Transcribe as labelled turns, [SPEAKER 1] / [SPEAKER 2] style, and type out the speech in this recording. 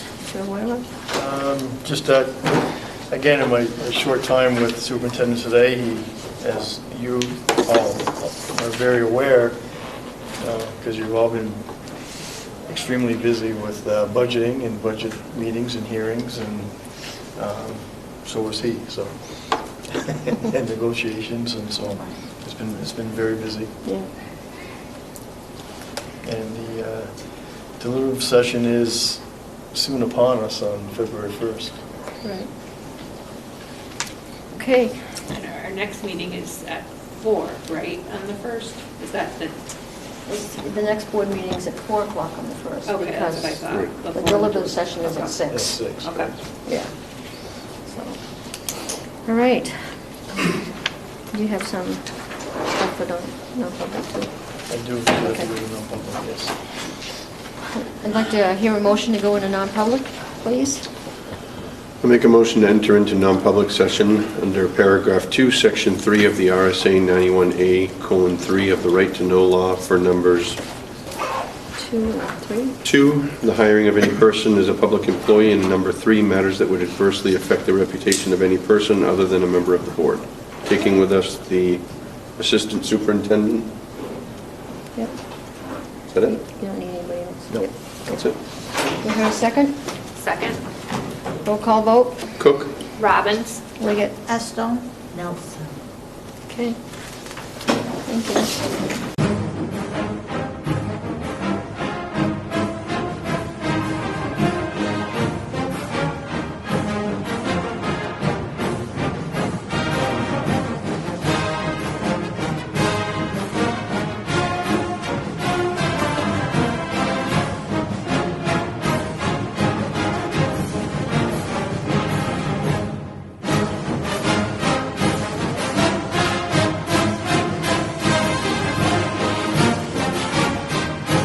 [SPEAKER 1] Chair Wyler?
[SPEAKER 2] Um, Just, uh, again, in my short time with superintendent today, he, as you all are very aware, because you've all been extremely busy with uh, budgeting and budget meetings and hearings, and um, so was he, so, and negotiations, and so, it's been, it's been very busy.
[SPEAKER 1] Yeah.
[SPEAKER 2] And the uh, deliberative session is soon upon us on February 1st.
[SPEAKER 1] Right. Okay,
[SPEAKER 3] And our next meeting is at four, right, on the first? Is that the,
[SPEAKER 4] It's- The next board meeting is at 4 o'clock on the 1st.
[SPEAKER 3] okay, that's what I
[SPEAKER 4] because
[SPEAKER 3] thought.
[SPEAKER 4] The
[SPEAKER 3] before.
[SPEAKER 4] deliberative session is
[SPEAKER 3] Okay.
[SPEAKER 4] at 6.
[SPEAKER 2] At six.
[SPEAKER 3] Okay.
[SPEAKER 1] yeah.
[SPEAKER 4] So,
[SPEAKER 1] All right. You have some stuff for non- non-public too.
[SPEAKER 2] I do, I do it in non-public, yes.
[SPEAKER 1] I'd like to hear a motion to go into non-public, please.
[SPEAKER 5] I make a motion to enter into non-public session under paragraph 2, section 3 of the RSA 91A, colon 3 of the Right to Know Law for numbers
[SPEAKER 1] Two and three.
[SPEAKER 5] 2, the hiring of any person as a public employee, and number 3, matters that would adversely affect the reputation of any person other than a member of the board. Taking with us the assistant superintendent,
[SPEAKER 1] Yep.
[SPEAKER 5] is that
[SPEAKER 1] You
[SPEAKER 5] it?
[SPEAKER 1] don't need anybody else.
[SPEAKER 5] No,
[SPEAKER 1] Yep.
[SPEAKER 5] that's it.
[SPEAKER 1] You hear a second?
[SPEAKER 3] Second,
[SPEAKER 1] Roll call vote.
[SPEAKER 5] Cook?
[SPEAKER 3] Robbins?
[SPEAKER 1] Liggett.
[SPEAKER 6] Estone? Nelson.
[SPEAKER 1] Okay. Thank you.